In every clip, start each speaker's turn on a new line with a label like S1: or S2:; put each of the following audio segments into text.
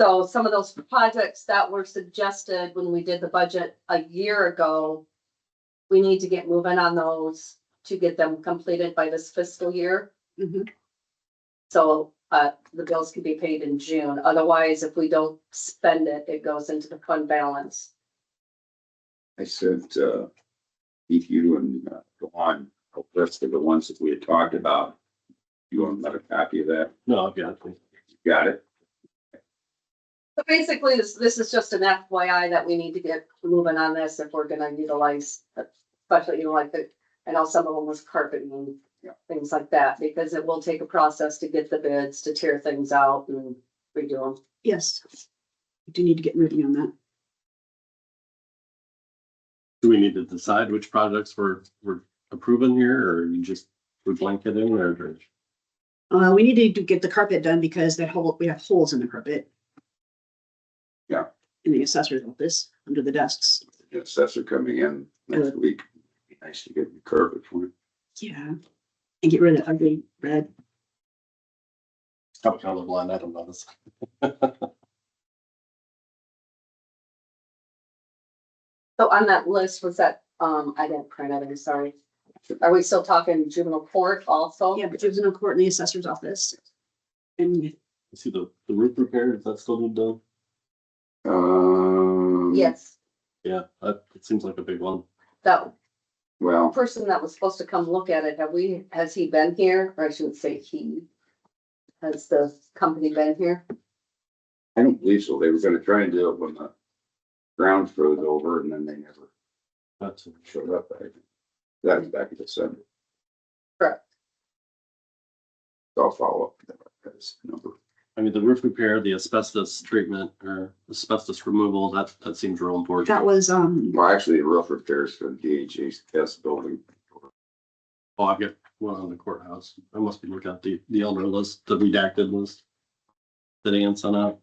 S1: So some of those projects that were suggested when we did the budget a year ago, we need to get moving on those to get them completed by this fiscal year.
S2: Mhm.
S1: So, uh, the bills can be paid in June. Otherwise, if we don't spend it, it goes into the fund balance.
S3: I sent, uh, Keith, you and uh, Dawn, a list of the ones that we had talked about. You want another copy of that?
S4: No, I've got it.
S3: You Got it?
S1: So basically, this, this is just an FYI that we need to get moving on this if we're gonna utilize, especially, you know, like the, I know some of them was carpeting and things like that, because it will take a process to get the bids, to tear things out and redo them.
S2: Yes. We Do need to get moving on that.
S4: Do we need to decide which projects we're, we're approving here or you just, we blanket in or? or-
S2: Uh, we need to do- get the carpet done because that hole, we have holes in the carpet.
S3: Yeah.
S2: In the assessor's office, under the desks.
S3: The Assessor coming in next week. Be Nice to get the curve at point.
S2: Yeah. And get rid of that ugly red.
S4: I'm colorblind, I don't know this.
S1: So on that list, was that, um, I didn't print it, I'm sorry. Are we still talking juvenile court also?
S2: Yeah, but there's no court in the assessor's office. And
S4: You See the, the roof repair, is that still being done?
S3: Um.
S1: Yes,
S4: Yeah, that, it seems like a big one.
S1: that
S3: Well,
S1: person that was supposed to come look at it, have we, has he been here? Or I shouldn't say he. Has the company been here?
S3: I don't believe so. They were gonna try and do it when the ground froze over and then they never
S4: That's,
S3: showed up. I think. That was back in December.
S1: Correct.
S3: So I'll follow up. That's number
S4: I mean, the roof repair, the asbestos treatment or asbestos removal, that, that seems real important.
S2: that was, um,
S3: Well, actually, the roof repairs for the DHS building.
S4: Oh, I've got one on the courthouse. I must be looking at the, the elder list, the redacted list. That Ann sent out.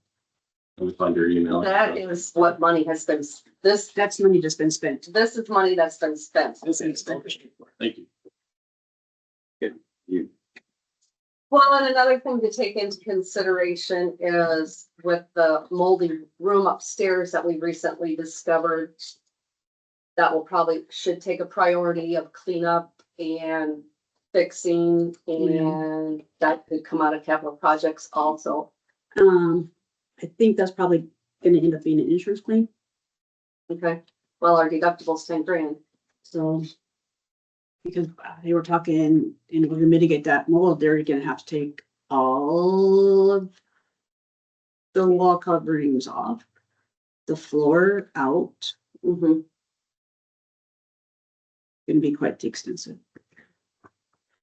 S4: Let me find your email.
S1: That is what money has been, s- this,
S2: that's money that's been spent.
S1: this is money that's been spent.
S4: This is- Thank you.
S1: Well, and another thing to take into consideration is with the moldy room upstairs that we recently discovered. That will probably, should take a priority of cleanup and fixing and that could come out of capital projects also.
S2: Um, I think that's probably gonna end up being an insurance claim,
S1: Okay, well, our deductible's ten grand.
S2: so. Because uh, they were talking, in order to mitigate that mold, they're gonna have to take all of. The wall coverings off, the floor out,
S4: Mm-hmm.
S1: Mhm.
S2: gonna be quite extensive.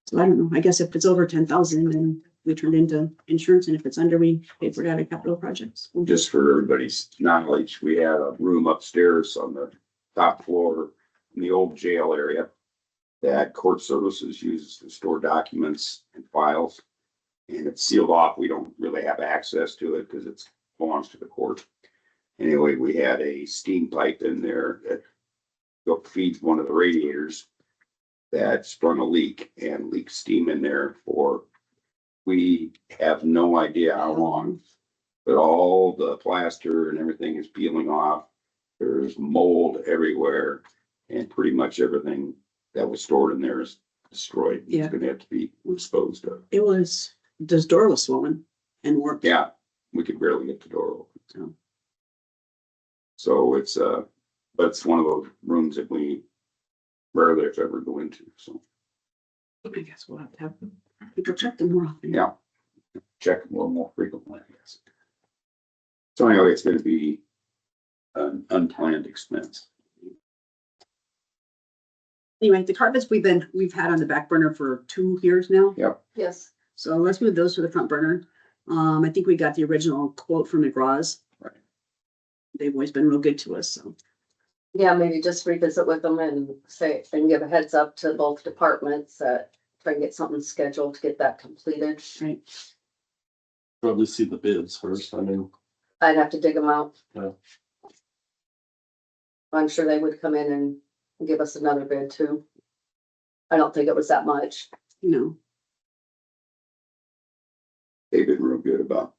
S2: So I don't know, I guess if it's over ten thousand, then we turn it into insurance, and if it's under, we pay for it out of capital projects.
S3: Just for everybody's knowledge, we had a room upstairs on the top floor in the old jail area that court services uses to store documents and files. And it's sealed off. We don't really have access to it because it's belongs to the court. Anyway, we had a steam pipe in there that go- feeds one of the radiators that sprung a leak and leaked steam in there for, we have no idea how long. But all the plaster and everything is peeling off. There's mold everywhere and pretty much everything that was stored in there is destroyed.
S2: Yeah.
S3: It's gonna have to be disposed of.
S2: It was, this door was swollen and warped.
S3: Yeah, we could barely get the door
S2: Yeah.
S3: open. So it's, uh, but it's one of those rooms that we rarely if ever go into, so,
S2: I guess we'll have to have people check them more often.
S3: yeah. Check a little more frequently, I guess. So anyway, it's gonna be an unplanned expense.
S2: Anyway, the carpets we've been, we've had on the back burner for two years now,
S1: Yes,
S2: so let's move those to the front burner. Um, I think we got the original quote from McGraw's.
S3: Right.
S2: They've always been real good to us, so.
S1: yeah, maybe just revisit with them and say, and give a heads up to both departments that try and get something scheduled to get that completed.
S2: Right.
S4: Probably see the bids first. I mean,
S1: I'd have to dig them out.
S4: Yeah.
S1: I'm sure they would come in and give us another bid too. I don't think it was that much.
S2: You know,
S3: They've been real good about